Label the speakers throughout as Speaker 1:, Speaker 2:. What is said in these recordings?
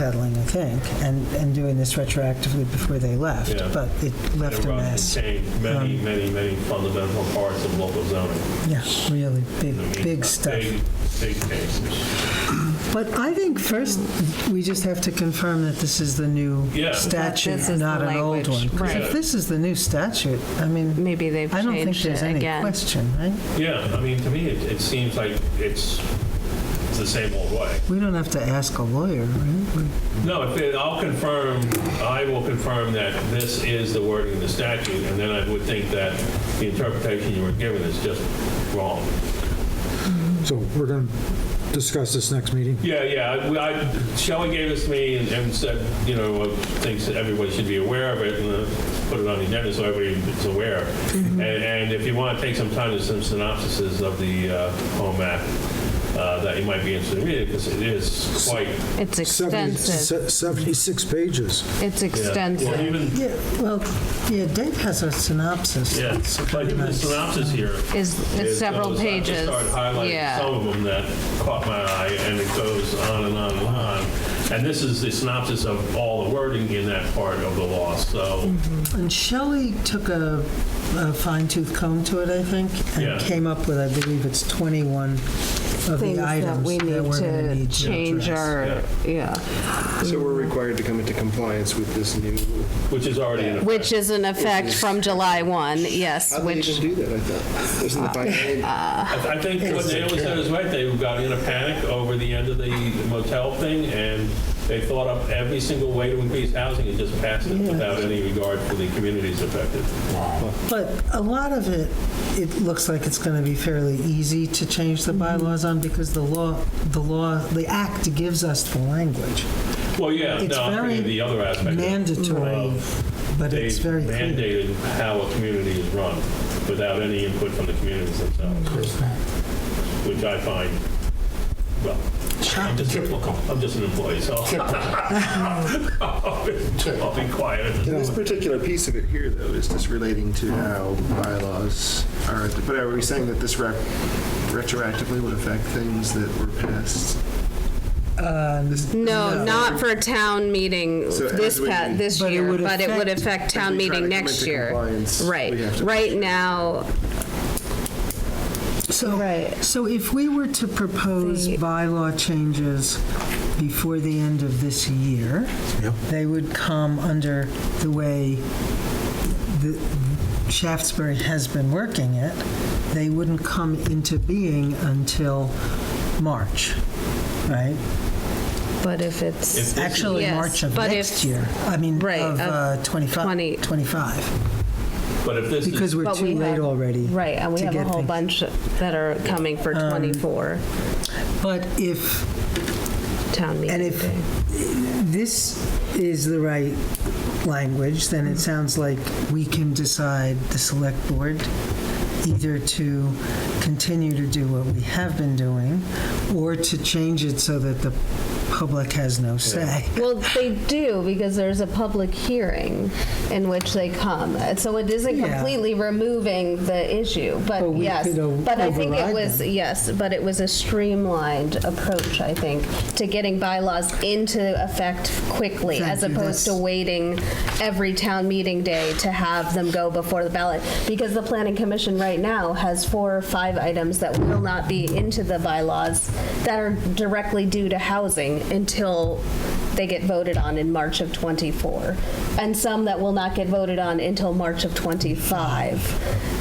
Speaker 1: peddling, I think, and, and doing this retroactively before they left,
Speaker 2: Yeah.
Speaker 1: but it left a
Speaker 2: Rob
Speaker 1: mess.
Speaker 2: contained many,
Speaker 1: Um,
Speaker 2: many, many fundamental parts of local zoning.
Speaker 1: Yeah, really big,
Speaker 2: I mean, uh,
Speaker 1: big stuff.
Speaker 2: Big, big things.
Speaker 1: But I think first, we just have to confirm that this is the new
Speaker 2: Yeah.
Speaker 3: This
Speaker 1: statute,
Speaker 3: is
Speaker 1: not
Speaker 3: the
Speaker 1: an old
Speaker 3: language,
Speaker 1: one. 'Cause
Speaker 3: right.
Speaker 1: if this is the new statute, I mean,
Speaker 3: Maybe they've
Speaker 1: I don't think
Speaker 3: changed
Speaker 1: there's
Speaker 3: it
Speaker 1: any
Speaker 3: again.
Speaker 1: question, right?
Speaker 2: Yeah, I mean, to me, it, it seems like it's it's the same old way.
Speaker 1: We don't have to ask a lawyer, right? We-
Speaker 2: No, if it, I'll confirm, I will confirm that this is the wording of the statute, and then I would think that the interpretation you were given is just wrong.
Speaker 4: So we're going to discuss this next meeting?
Speaker 2: Yeah, yeah. I- I- Shelley gave this to me and- and said, you know, thinks that everybody should be aware of it and uh, put it on the agenda so everybody's aware.
Speaker 3: Mm-hmm.
Speaker 2: And- And if you want to take some time to some synopses of the uh, Home Act, uh, that you might be interested in reading, because it is quite...
Speaker 3: It's
Speaker 4: Seventy-
Speaker 3: extensive.
Speaker 4: se- 76 pages.
Speaker 3: It's
Speaker 2: yeah. Well,
Speaker 3: extensive.
Speaker 2: even,
Speaker 1: Yeah, well, yeah, Dave has a synopsis.
Speaker 2: yeah,
Speaker 1: It's
Speaker 2: but
Speaker 1: pretty
Speaker 2: even the
Speaker 1: nice.
Speaker 2: synopsis here...
Speaker 3: Is,
Speaker 2: is
Speaker 3: it's several
Speaker 2: those- uh,
Speaker 3: pages.
Speaker 2: I just started highlighting
Speaker 3: Yeah.
Speaker 2: some of them that caught my eye, and it goes on and on and on. And this is the synopsis of all the wording in that part of the law,
Speaker 3: Mm-hmm.
Speaker 2: so...
Speaker 1: And Shelley took a, a fine tooth comb to it, I think, and
Speaker 2: Yeah.
Speaker 1: came up with, I believe it's 21 of
Speaker 3: Things
Speaker 1: the
Speaker 3: that
Speaker 1: items
Speaker 3: we
Speaker 1: that
Speaker 3: need
Speaker 1: we're going to
Speaker 3: to
Speaker 1: need to
Speaker 3: change
Speaker 1: address.
Speaker 3: our, yeah.
Speaker 5: So we're required to come into compliance with this new,
Speaker 2: Which is already in effect.
Speaker 3: Which is in effect from July 1, yes,
Speaker 5: how do they
Speaker 3: which,
Speaker 5: even do that, I thought? Isn't the by name?
Speaker 2: I I think what Naomi said is right, they got in a panic over the end of the motel thing, and they thought up every single way to increase housing and just passed it without any regard for the communities affected.
Speaker 1: But a lot of it, it looks like it's going to be fairly easy to change the
Speaker 3: Mm-hmm.
Speaker 1: bylaws on because the law, the law, the act gives us the language.
Speaker 2: Well, yeah,
Speaker 1: It's
Speaker 2: no, I'm
Speaker 1: very
Speaker 2: thinking the other aspect. of-
Speaker 1: Mandatory, but
Speaker 2: They
Speaker 1: it's very clear.
Speaker 2: mandated how a community is run without any input from the communities themselves, which I find, well, I'm just, I'm just an employee, so I'll be- I'll be quiet.
Speaker 5: This particular piece of it here, though, is just relating to how bylaws are, but are we saying that this rep- retroactively would affect things that were passed?
Speaker 3: no, not for town meeting
Speaker 5: So
Speaker 3: this
Speaker 5: as we-
Speaker 3: pa, this
Speaker 1: But it
Speaker 3: year,
Speaker 1: would
Speaker 3: but it would affect
Speaker 5: As
Speaker 3: town
Speaker 5: we try
Speaker 3: meeting
Speaker 5: to come
Speaker 3: next
Speaker 5: into
Speaker 3: year.
Speaker 5: compliance,
Speaker 3: Right,
Speaker 5: we have to-
Speaker 3: right now,
Speaker 1: So,
Speaker 3: Right.
Speaker 1: so if we were to propose
Speaker 3: The-
Speaker 1: bylaw changes before the end of this year, they would come under the way the Shaftesbury has been working it. They wouldn't come into being until March, right?
Speaker 3: but if it's,
Speaker 1: Actually,
Speaker 3: Yes,
Speaker 1: March of
Speaker 3: but
Speaker 1: next
Speaker 3: if-
Speaker 1: year. I mean,
Speaker 3: Right,
Speaker 1: of
Speaker 3: of
Speaker 1: uh, 25,
Speaker 3: twenty-
Speaker 1: 25,
Speaker 2: But if this
Speaker 1: because
Speaker 2: is,
Speaker 1: we're
Speaker 3: But
Speaker 1: too
Speaker 3: we
Speaker 1: late
Speaker 3: have-
Speaker 1: already.
Speaker 3: right, and we
Speaker 1: to
Speaker 3: have a
Speaker 1: get
Speaker 3: whole
Speaker 1: things- Um,
Speaker 3: bunch that are coming for 24
Speaker 1: But if
Speaker 3: town
Speaker 1: And
Speaker 3: meeting
Speaker 1: if
Speaker 3: day.
Speaker 1: this is the right language, then it sounds like we can decide, the select board, either to continue to do what we have been doing, or to change it so that the public has no say.
Speaker 3: Well, they do because there's a public hearing in which they come. And So it isn't
Speaker 1: Yeah.
Speaker 3: completely removing the issue,
Speaker 1: But
Speaker 3: but
Speaker 1: we
Speaker 3: yes.
Speaker 1: could o-
Speaker 3: But I think it
Speaker 1: override
Speaker 3: was,
Speaker 1: them.
Speaker 3: yes, but it was a streamlined approach, I think, to getting bylaws into effect quickly
Speaker 1: Thank
Speaker 3: as
Speaker 1: you.
Speaker 3: opposed to
Speaker 1: That's-
Speaker 3: waiting every town meeting day to have them go before the ballot. Because the planning commission right now has four or five items that will not be into the bylaws that are directly due to housing until they get voted on in March of '24. And some that will not get voted on until March of '25.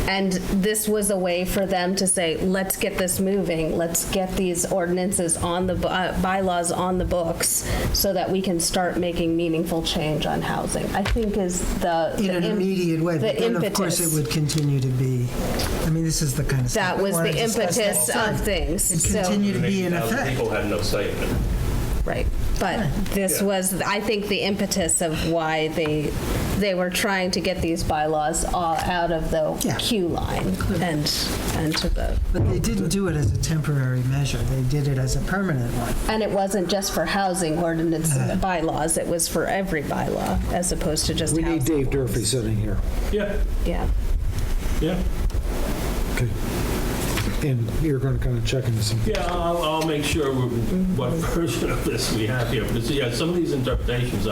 Speaker 3: And this was a way for them to say, let's get this moving, let's get these ordinances on the, bu- uh, bylaws on the books so that we can start making meaningful change on housing, I think is the.
Speaker 1: In
Speaker 3: the
Speaker 1: an
Speaker 3: im-
Speaker 1: immediate way,
Speaker 3: the
Speaker 1: but then of course it
Speaker 3: impetus.
Speaker 1: would continue to be, I mean, this is the kind of stuff.
Speaker 3: That
Speaker 1: we
Speaker 3: was
Speaker 1: wanna
Speaker 3: the
Speaker 1: discuss
Speaker 3: impetus
Speaker 1: next time.
Speaker 3: of things,
Speaker 1: It'd
Speaker 3: so-
Speaker 1: continue to be in
Speaker 2: 80,000
Speaker 1: effect.
Speaker 2: People had no say in it.
Speaker 3: Right, but this
Speaker 2: Yeah.
Speaker 3: was, I think, the impetus of why they, they were trying to get these bylaws all out of
Speaker 1: Yeah.
Speaker 3: the queue line and, and to the,
Speaker 1: But they didn't do it as a temporary measure, they did it as a permanent one.
Speaker 3: And it wasn't just for housing ordinance
Speaker 4: Uh-huh.
Speaker 3: bylaws, it was for every bylaw, as opposed to just
Speaker 4: We need
Speaker 3: housing.
Speaker 4: Dave Durfee sitting here.
Speaker 2: Yeah,
Speaker 3: Yeah.
Speaker 2: yeah.
Speaker 4: Okay. and you're going to kind of check into some.
Speaker 2: Yeah, I'll, I'll make sure what version of this we have here, because, yeah, some of these interpretations